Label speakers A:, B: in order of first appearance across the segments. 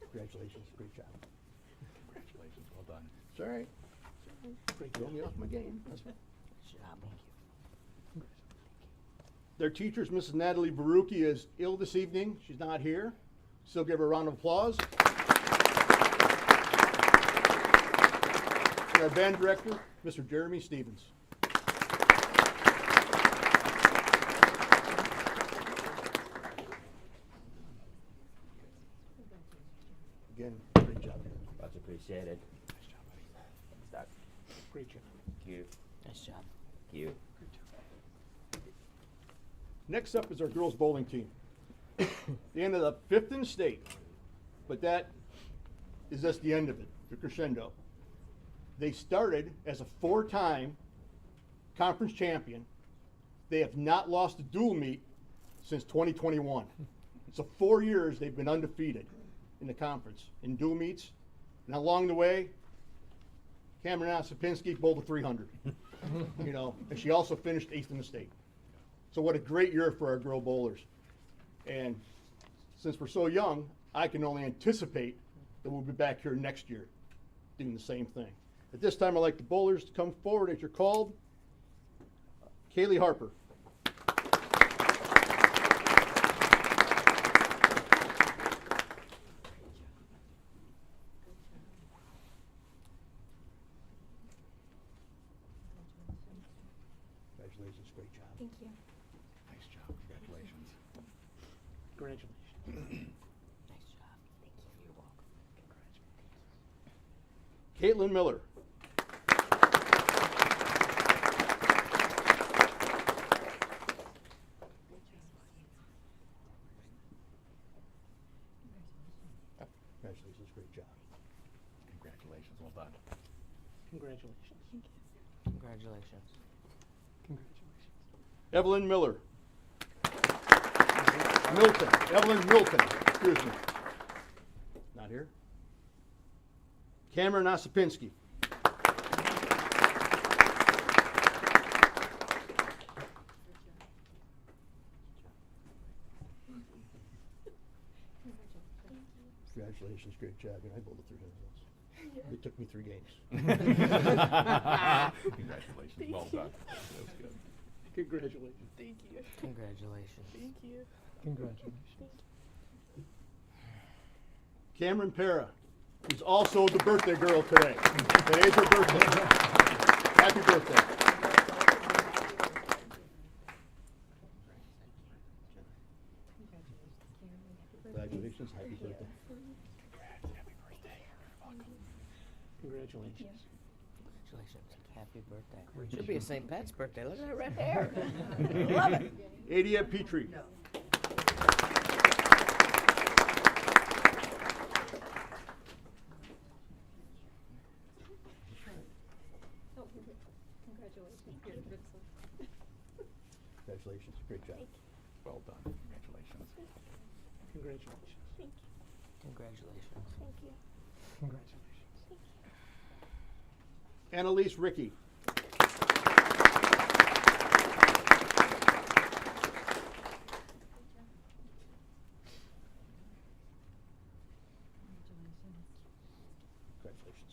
A: Congratulations, great job.
B: Congratulations, well done.
A: It's all right. Throw me off my game. That's all. Their teachers, Mrs. Natalie Baruki, is ill this evening. She's not here. Still give her a round of applause. And our band director, Mr. Jeremy Stevens. Again, great job.
C: Much appreciated. Start.
A: Great job.
C: Thank you.
D: Nice job.
C: Thank you.
A: Next up is our girls bowling team. They ended up fifth in state, but that is just the end of it, the crescendo. They started as a four-time conference champion. They have not lost a dual meet since 2021. So four years they've been undefeated in the conference in dual meets. And along the way, Cameron Osipinski bowled a 300. you know, and she also finished eighth in the state. So what a great year for our girl bowlers. And since we're so young, I can only anticipate that we'll be back here next year doing the same thing. At this time, I'd like the bowlers to come forward as you're called. Kaylee Harper. Congratulations, great job.
E: Thank you.
B: Nice job, congratulations.
D: Nice job. Thank you. You're welcome.
A: Caitlin Miller. Congratulations, great job.
B: Congratulations, well done.
E: Thank you.
D: Congratulations.
A: Evelyn Miller. Milton, Evelyn Milton, excuse me. Not here. Cameron Osipinski. Congratulations, great job, and I bowled a 300 once. It took me three games.
B: Congratulations, well done. That was good.
E: Congratulations. Thank you.
D: Congratulations.
E: Thank you.
A: Cameron Para, who's also the birthday girl today. Today's her birthday. Happy birthday. Congratulations, happy birthday.
F: Congratulations.
D: Congratulations. Happy birthday. Should be a St. Pat's birthday. Look at that red hair.
A: Adia Petrie.
E: Oh, congratulations.
A: Congratulations, great job.
B: Well done, congratulations.
F: Congratulations.
E: Thank you.
D: Congratulations.
E: Thank you.
F: Congratulations.
A: Annalise Ricky. Congratulations.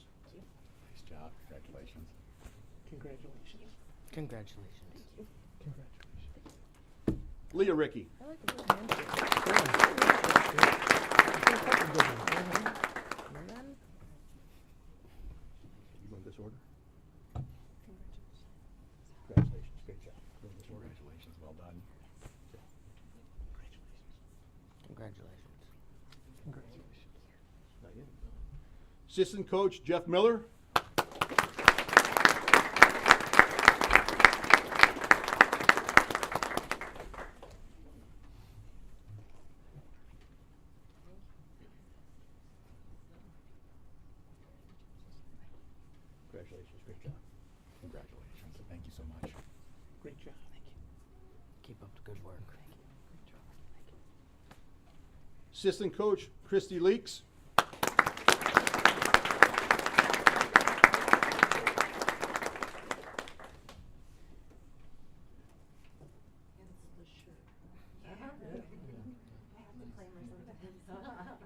B: Nice job, congratulations.
F: Congratulations.
D: Congratulations.
F: Congratulations.
A: Leah Ricky.
D: And then,
A: You want this order? Congratulations, great job. You want this order?
B: Congratulations, well done.
D: congratulations.
F: Congratulations.
A: Not yet. Assistant coach Jeff Miller. Congratulations, great job.
B: Congratulations, thank you so much.
F: Great job. Thank you.
D: Keep up the good work.
A: Assistant coach Christy Leaks.